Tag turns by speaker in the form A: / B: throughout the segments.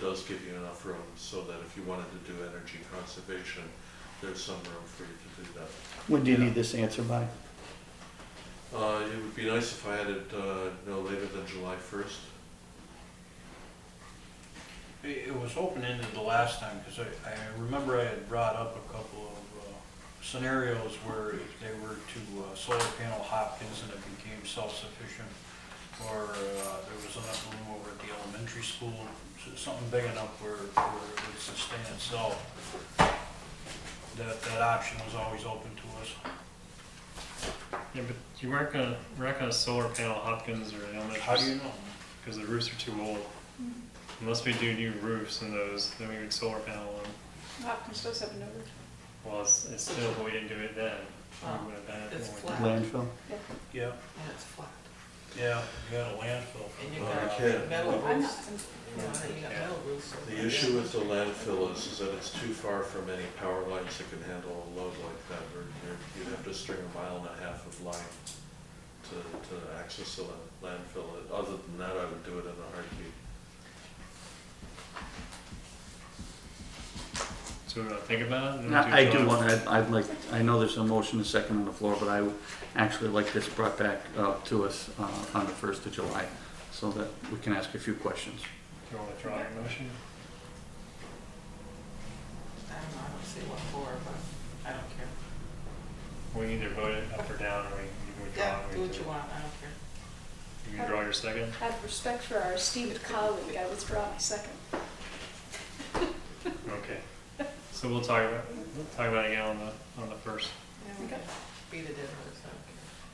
A: does give you enough room so that if you wanted to do energy conservation, there's some room for you to do that.
B: When do you need this answer by?
A: Uh, it would be nice if I had it, uh, no later than July first.
C: It it was open-ended the last time, because I, I remember I had brought up a couple of uh, scenarios where if they were to uh, solar panel Hopkins and it became self-sufficient, or uh, there was enough room over at the elementary school, so something big enough where, where it would sustain itself. That, that option was always open to us.
D: Yeah, but you weren't gonna, we're not gonna solar panel Hopkins or
C: How do you
D: elementary,
C: know?
D: because the roofs are too old. Unless we do new roofs and those, then we would solar panel them.
E: Hopkins does have another,
D: Well, it's, it's still, but we didn't do it then.
F: Oh,
D: We would have done it
F: it's
D: when we-
F: flat.
B: Landfill?
C: Yeah,
F: And it's flat.
C: yeah, you got a landfill.
F: And you
A: Well,
C: Uh,
A: you
F: got
A: can't.
F: metal
E: Oh, I'm not,
F: roofs. You know, you got metal roofs. so-
A: The issue with the landfill is, is that it's too far from any power lines that can handle a load like that, or you're- you'd have to string a mile and a half of line to, to access the lan- landfill. Other than that, I would do it in a heartbeat.
D: So we wanna think about it? and then
B: No, I
D: July?
B: do want, I'd, I'd like, I know there's a motion, a second on the floor, but I would actually like this brought back, uh, to us, uh, on the first of July, so that we can ask a few questions.
D: Do you wanna draw your motion?
F: I don't know, I don't see what for, but I don't care.
D: We can either vote it up or down, or we you can
F: Yeah,
D: withdraw. it,
F: do
D: we
F: what you
D: can-
F: want, I don't care.
D: You can draw your second.
E: out of respect for our esteemed colleague, I withdraw my second.
D: Okay. So we'll talk about, we'll talk about it again on the, on the first.
F: Yeah, we
E: Okay.
F: can Beat it in, it's,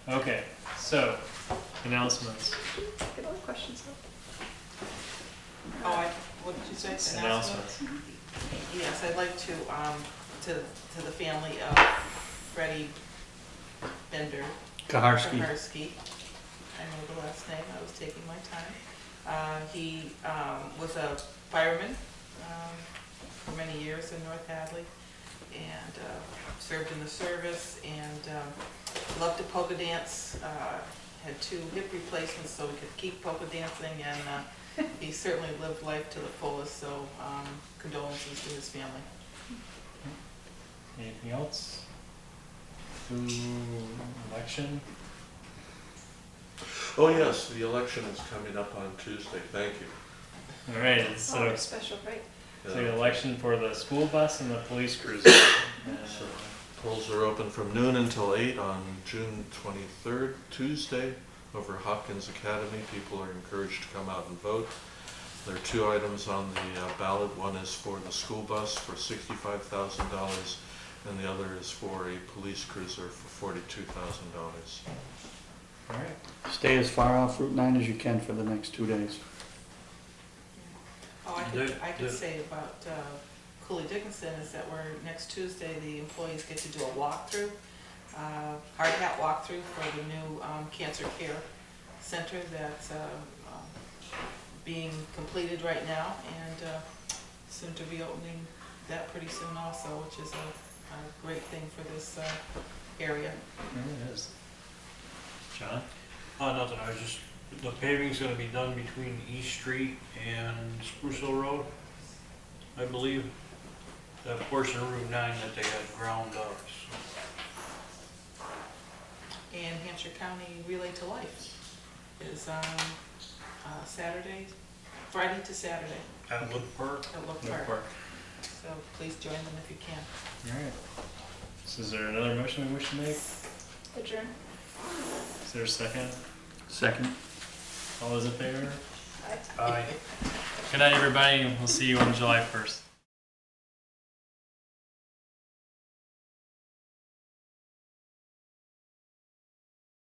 F: I don't
D: Okay, so announcements.
E: Get all the questions out.
F: care. Oh, I, what did you say? Announcement?
D: Announcements.
F: Yes, I'd like to, um, to, to the family of Freddie Bender
B: Kaharski,
F: Kaharski. I know the last name, I was taking my time. Uh, He um, was a fireman um, for many years in North Hadley and uh, served in the service and um, loved to polka dance. uh, Had two hip replacements so he could keep polka dancing and uh, he certainly lived life to the fullest, so um, condolences to his family.
D: Anything else? Ooh, election?
A: Oh, yes, the election is coming up on Tuesday, thank you.
D: All right,
F: uh,
E: Oh,
D: so,
E: it's special, right?
D: so
A: Yeah.
D: the election for the school bus and the police cruiser. Uh,
A: So- Polls are open from noon until eight on June twenty-third, Tuesday, over at Hopkins Academy. People are encouraged to come out and vote. There are two items on the uh, ballot. One is for the school bus for sixty-five thousand dollars, and the other is for a police cruiser for forty-two thousand dollars.
D: All right,
B: stay as far off Route nine as you can for the next two days.
F: Oh, I could,
C: Dick-
F: I could
C: Dick.
F: say about uh, Cooley Dickinson is that we're, next Tuesday, the employees get to do a walkthrough, uh, hard hat walkthrough for the new um, cancer care center that's uh, um, being completed right now and uh, soon to be opening that pretty soon also, which is a, a great thing for this uh, area.
D: there it is. John?
C: Uh, nothing, I was just, the paving's gonna be done between East Street and Spruce Hill Road, I believe. That portion of Route nine that they had ground up, so,
F: And Hampshire County Relay to Life is um, uh, Saturday, Friday to Saturday
C: at Wood Park.
F: at Look
D: No
F: Park.
D: part.
F: So please join them if you can.
D: All right. So is there another motion we wish to make?
E: Adjourn.
D: Is there a second?
B: Second?
D: All those in favor?
E: Aye.
C: Aye.
D: Good night, everybody, and we'll see you on July first.